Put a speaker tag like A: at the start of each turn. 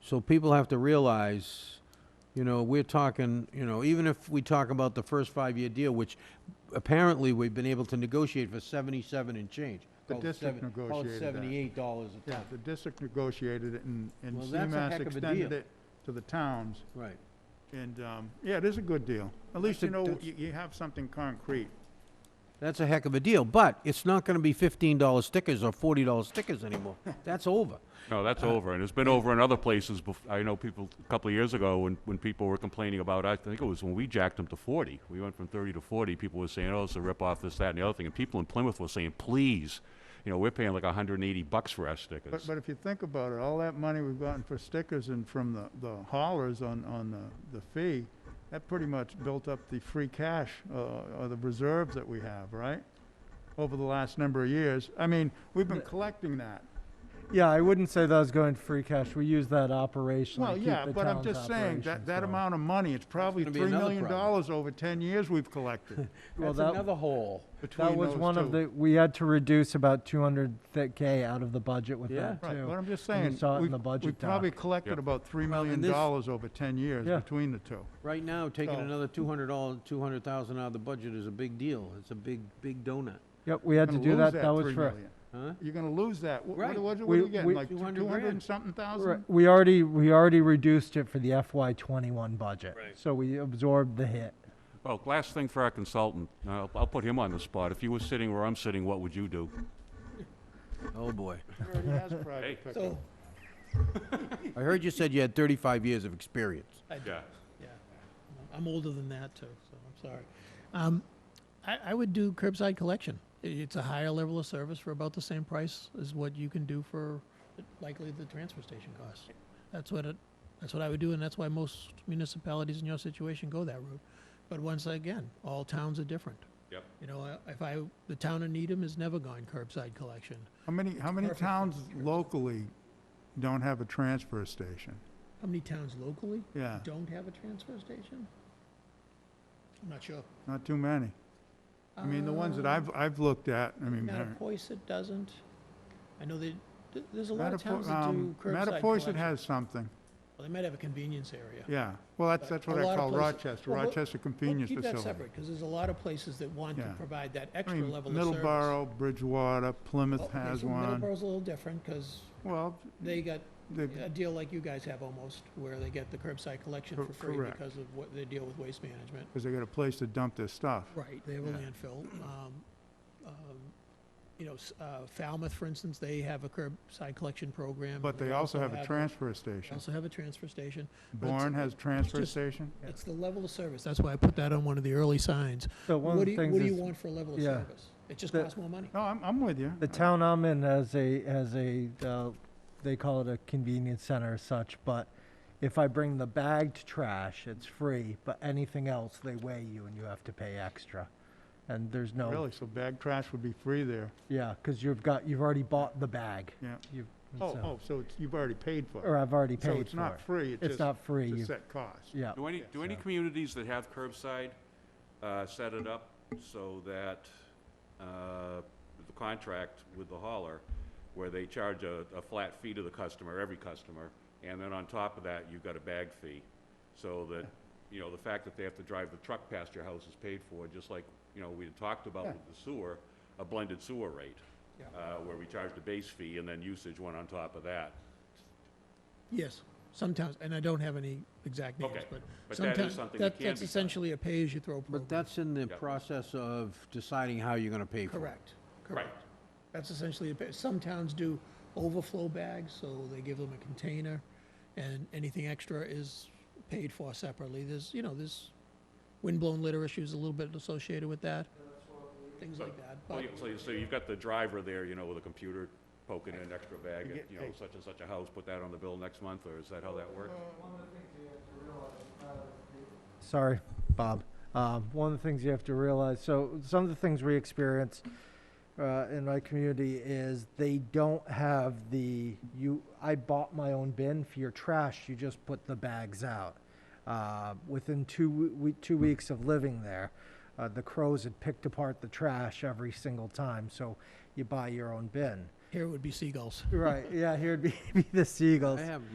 A: So people have to realize, you know, we're talking, you know, even if we talk about the first five-year deal, which apparently we've been able to negotiate for seventy-seven and change.
B: The
A: call it
B: district
A: seven- call it
B: negotiated that.
A: Seventy-eight dollars a
B: Yeah,
A: ton,
B: the district negotiated it and, and
A: Well, that's a heck
B: CMAS
A: of a
B: extended
A: deal.
B: it to the towns.
A: right.
B: And, um, yeah, it is a good deal. At least
A: a-
B: you know,
A: that's-
B: you, you have something concrete.
A: That's a heck of a deal, but it's not gonna be fifteen dollar stickers or forty dollar stickers anymore. That's over.
C: No, that's
B: Uh,
C: over, and it's been over in other places. bef- I know people, a couple of years ago, when, when people were complaining about, I think it was when we jacked them to 40. We went from 30 to 40, people were saying, oh, it's a rip-off, this, that, and the other thing. And people in Plymouth were saying, please, you know, we're paying like 180 bucks for our
B: But,
C: stickers.
B: but if you think about it, all that money we've gotten for stickers and from the, the haulers on, on the, the fee, that pretty much built up the free cash, uh, or the reserves that we have, right? Over the last number of years. I mean, we've been collecting that.
D: Yeah, I wouldn't say that was going to free cash. We use that operationally.
B: Well,
D: to keep
B: yeah,
D: the
B: but I'm
D: town's
B: just saying, that,
D: operations
B: that
D: going.
B: amount of money, it's probably
A: gonna be
B: three
A: another
B: million
A: problem.
B: dollars over ten years we've collected
D: Well,
A: That's
D: that-
A: another hole.
B: between
D: That was
B: those
D: one of
B: two.
D: the, we had to reduce about two hundred K out of the budget with
A: Yeah.
D: that
B: Right, but
D: too.
B: I'm just
D: And you
B: saying,
D: saw it in
B: we've,
D: the budget
B: we've probably
D: doc.
B: collected
C: Yep.
B: about three
A: Well, and
B: million
A: this-
B: dollars over ten years
D: Yeah.
B: between the two.
A: Right now, taking
B: So-
A: another two hundred dollars, two hundred thousand out of the budget is a big deal. It's a big, big donut,
D: Yep, we had to
B: Gonna
D: do
B: lose
D: that. That was
B: three
D: for,
B: million.
A: huh?
B: You're gonna lose that. Wh- What,
A: Right.
B: what, what are
D: We-
B: you getting,
D: we-
B: like two
A: 200
B: hundred
A: grand.
B: and something
D: right,
B: thousand?
D: we already, we already reduced it for the FY twenty-one budget.
A: Right.
D: So we absorbed the hit.
C: Well, last thing for our consultant, I'll, I'll put him on the spot. If you were sitting where I'm sitting, what would you do?
A: Oh, boy.
B: Already has private pickup.
A: I heard you said you had thirty-five years of experience.
C: Yeah.
E: Yeah, I'm older than that too, so I'm sorry. Um, I, I would do curbside collection. I- It's a higher level of service for about the same price as what you can do for likely the transfer station costs. That's what it, that's what I would do, and that's why most municipalities in your situation go that route. But once again, all towns are different.
C: Yep.
E: You know, I- if I, the town of Needham has never gone curbside collection.
B: How many, how many
E: Perfect.
B: towns locally don't have a transfer station?
E: How many towns locally
B: Yeah,
E: don't have a transfer station? I'm not sure.
B: not too many. I mean, the ones that I've, I've looked at, I mean, they're-
E: Mattapoisett doesn't. I know they, th- there's a lot of towns
B: Mattapo-
E: that
B: um,
E: do curbside
B: Mattapoisett
E: collection. Well,
B: has something,
E: They might have a convenience area.
B: yeah. Well, that's,
E: But
B: that's
E: a
B: what I
E: lot of
B: call
E: places-
B: Rochester,
E: well, we'll-
B: Rochester
E: Well,
B: Convenience
E: Keep that
B: Facility.
E: separate, because there's a lot of places that want to
B: Yeah.
E: provide that
B: I
E: extra
B: mean,
E: level of service.
B: Middleborough, Bridgewater, Plymouth
E: Well, okay,
B: has
E: so
B: one.
E: Middleborough's a little different, because
B: Well,
E: they got
B: the,
E: a deal like you guys have almost, where they get the curbside collection
B: Cor-
E: for free
B: correct.
E: because of what they deal with waste management.
B: because they got a place to dump their stuff.
E: Right, they have a
B: Yeah.
E: landfill. Um, um, You know, s- uh, Falmouth, for instance, they have a curbside collection program.
B: But they also have a transfer
E: They
B: station.
E: also have a transfer station. but it's-
B: Bourne has transfer
E: just-
B: station.
E: It's the level of service. That's why I put that on one of the early signs.
D: So one
E: What
D: of
E: do
D: the
E: you, what do you
D: things is,
E: want for a level of
D: yeah.
E: service? It just
D: The-
E: costs more money.
B: No, I'm, I'm with you.
D: the town I'm in has a, has a, uh, they call it a convenience center or such, but if I bring the bagged trash, it's free, but anything else, they weigh you and you have to pay extra. And there's no.
B: Really, so bag trash would be free there.
D: Yeah, because you've got, you've already bought the bag.
B: Yeah.
D: You've,
B: Oh,
D: so-
B: oh, so it's, you've already paid for it.
D: Or I've already
B: So
D: paid
B: it's
D: for
B: not
D: it.
B: free, it's
D: It's
B: just,
D: not free,
B: it's a
D: you,
B: set cost.
D: yeah.
C: Do any, do any
D: so-
C: communities that have curbside, uh, set it up so that, uh, the contract with the hauler, where they charge a, a flat fee to the customer, every customer, and then on top of that, you've got a bag fee? So that, you know, the fact that they have to drive the truck past your house is paid for, just like, you know, we had talked about
B: Yeah.
C: with the sewer, a blended sewer rate.
E: Yeah.
C: Uh, where we charged a base fee and then usage went on top of that.
E: Yes, sometimes, and I don't have any exact names,
C: Okay,
E: but
C: but that is
E: sometimes,
C: something that
E: that,
C: can
E: that's
C: be done.
E: essentially a pay-as-you-throw program.
A: But that's in the
C: Yeah.
A: process of deciding how you're gonna pay for it.
E: Correct, correct. That's essentially, a bit- some towns do overflow bags, so they give them a container, and anything extra is paid for separately. There's, you know, there's windblown litter issues a little bit associated with that, things like that.
C: Well,
E: But
C: yeah, so, you- so you've got the driver there, you know, with a computer poking in an extra bag, at, you know, such and such a house, put that on the bill next month, or is that how that works?
D: Sorry, Bob. Um, one of the things you have to realize, so some of the things we experience uh, in my community is they don't have the you. I bought my own bin for your trash. You just put the bags out. Uh, within two w- we, two weeks of living there, uh, the crows had picked apart the trash every single time. So you buy your own bin.
E: here it would be seagulls.
D: Right? Yeah. Here would be, be the seagulls.
A: I have my